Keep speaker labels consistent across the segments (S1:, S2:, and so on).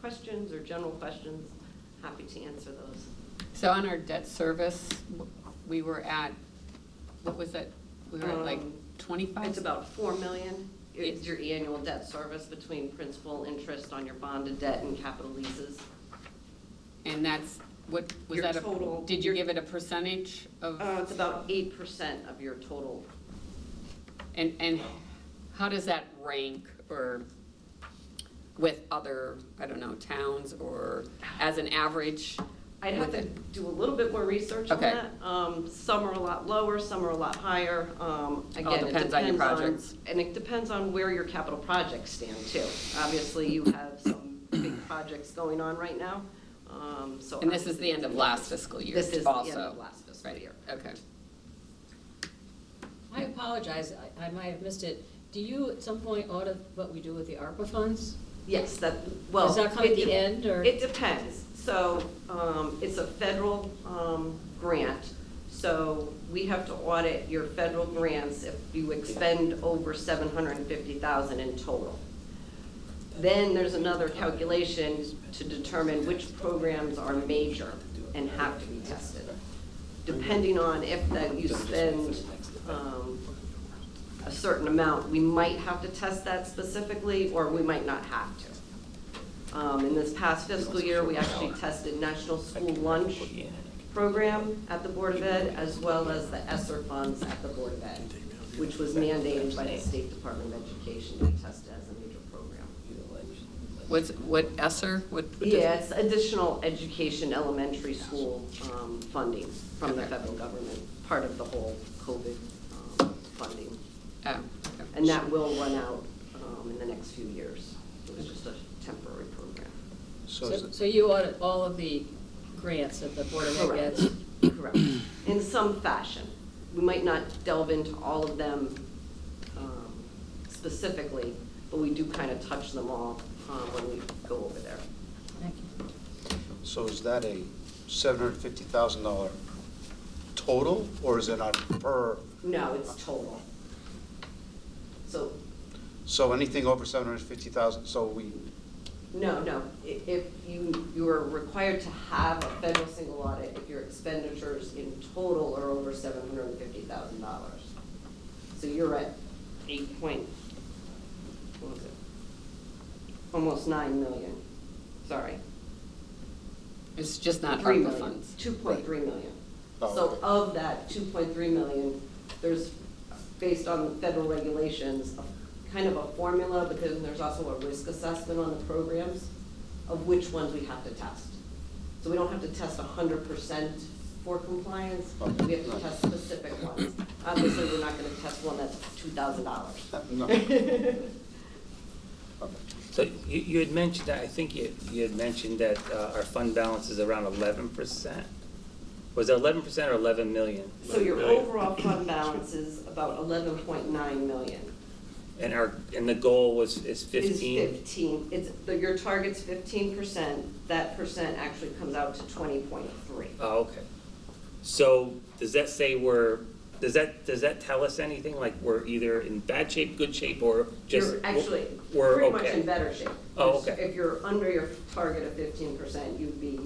S1: questions or general questions, happy to answer those.
S2: So on our debt service, w- we were at, what was that? We were at like
S1: Um,
S2: twenty-five?
S1: It's about four million is
S2: Oh, Yes.
S1: your annual debt service between principal, interest on your bonded debt and capital leases.
S2: And that's, what, was
S1: Your
S2: that
S1: total-
S2: a, did you
S1: your-
S2: give it a percentage of?
S1: Uh, it's about eight percent of your total.
S2: And, and how does that rank or with other, I don't know, towns or as an average?
S1: I'd have to
S2: with it?
S1: do a little bit more research on
S2: Okay.
S1: that. Um, some are a lot lower, some are a lot higher. Um, again, it
S2: depends on your
S1: depends on-
S2: projects.
S1: And it depends on where your capital projects stand too. Obviously, you have some big projects going on right now, um, so.
S2: And this is
S1: obviously
S2: the end of
S1: it's-
S2: last fiscal year
S1: This is the end
S2: also.
S1: of last fiscal
S2: Right,
S1: year.
S2: Okay.
S3: I apologize, I- I might have missed it. Do you at some point audit what we do with the ARPA funds?
S1: Yes, that, well.
S3: Does that come at
S1: it
S3: the
S1: de-
S3: end, or-
S1: It depends. So um, it's a federal um, grant, so we have to audit your federal grants if you expend over 750,000 in total. Then there's another calculation to determine which programs are major and have to be tested, depending on if that you spend um, a certain amount, we might have to test that specifically, or we might not have to. Um, in this past fiscal year, we actually tested National School Lunch Program at the Board of Ed, as well as the ESSER funds at the Board of Ed, which was mandated by the State Department of Education to test as a major program.
S2: What's, what ESSER, what? what does-
S1: Yeah, it's additional education elementary school, um, funding from the
S2: Okay.
S1: federal government, part of the whole COVID, um, funding.
S2: Oh, okay.
S1: And that will run out um, in the next few years. It was just a temporary program.
S4: So is
S3: So
S4: it-
S3: so you audit all of the grants that the Board of Ed
S1: Correct,
S3: gets?
S1: correct. In some fashion. We might not delve into all of them um, specifically, but we do kind of touch them all uh, when we go over there.
S3: Thank you.
S4: so is that a $750,000 total, or is it on per?
S1: No, it's total. So,
S4: So anything over 750,000, so we,
S1: no, no, i- if you, you are required to have a federal single audit if your expenditures in total are over seven hundred and fifty thousand dollars. So you're at eight point, what was it? Almost nine million, sorry.
S2: It's just not
S1: Three
S2: ARPA
S1: million.
S2: funds.
S1: Two point three million.
S4: Oh,
S1: So
S4: okay.
S1: of that two point three million, there's, based on federal regulations, a- kind of a formula, but then there's also a risk assessment on the programs of which ones we have to test. So we don't have to test hundred percent for compliance,
S4: Oh,
S1: we have to
S4: Okay.
S1: test specific ones. Obviously, we're not gonna test one that's two thousand dollars.
S4: No. okay.
S5: So you, you had mentioned, that I think you, you had mentioned that uh, our fund balance is around eleven percent. Was it eleven percent or eleven million?
S1: So your overall fund balance is about eleven point nine million.
S5: And our, and the goal was, is
S1: Is
S5: fifteen?
S1: fifteen, it's, the- your target's fifteen percent, that percent actually comes out to twenty point three.
S5: Oh, okay. So does that say we're, does that, does that tell us anything? Like we're either in bad shape, good shape, or just?
S1: You're actually,
S5: we're
S1: pretty much
S5: okay?
S1: in better shape.
S5: Oh,
S1: Because
S5: okay.
S1: If you're under your target of fifteen percent, you'd be,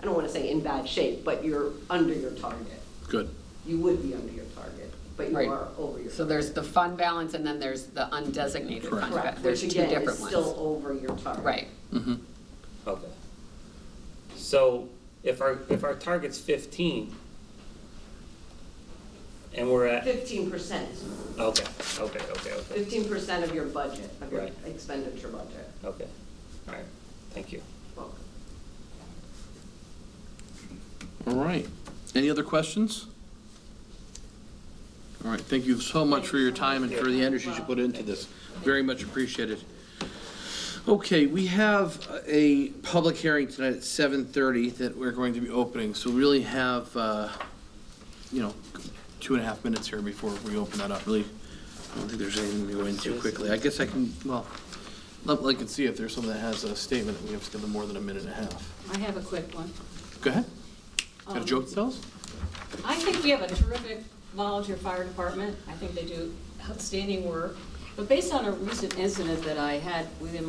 S1: I don't wanna say in bad shape, but you're under your target.
S6: Good.
S1: You would be under your target, but you
S2: Right.
S1: are over your target.
S2: So there's the fund balance and then there's the undesignated
S1: Correct,
S2: fund. balance.
S1: which
S2: There's two
S1: again is
S2: different
S1: still
S2: ones.
S1: over your target.
S2: Right.
S6: Mhm.
S5: Okay. So if our, if our target's fifteen, and we're at,
S1: Fifteen percent,
S5: okay, okay, okay, okay.
S1: fifteen percent of your budget, of your
S5: Right.
S1: expenditure budget.
S5: Okay, all right, thank you.
S1: Welcome.
S6: All right. Any other questions? All right, thank you so much for your time and for the energy you put into this. Very much appreciated. Okay, we have a public hearing tonight at 7:30 that we're going to be opening, so we really have, uh, you know, two and a half minutes here before we open that up, really. I don't think there's anything to go into quickly. I guess I can, well, let- I can see if there's someone that has a statement that we have to give them more than a minute and a half.
S3: I have a quick one.
S6: Go ahead. Got a
S3: Um,
S6: joke to tell us?
S3: I think we have a terrific volunteer fire department. I think they do outstanding work. But based on a recent incident that I had within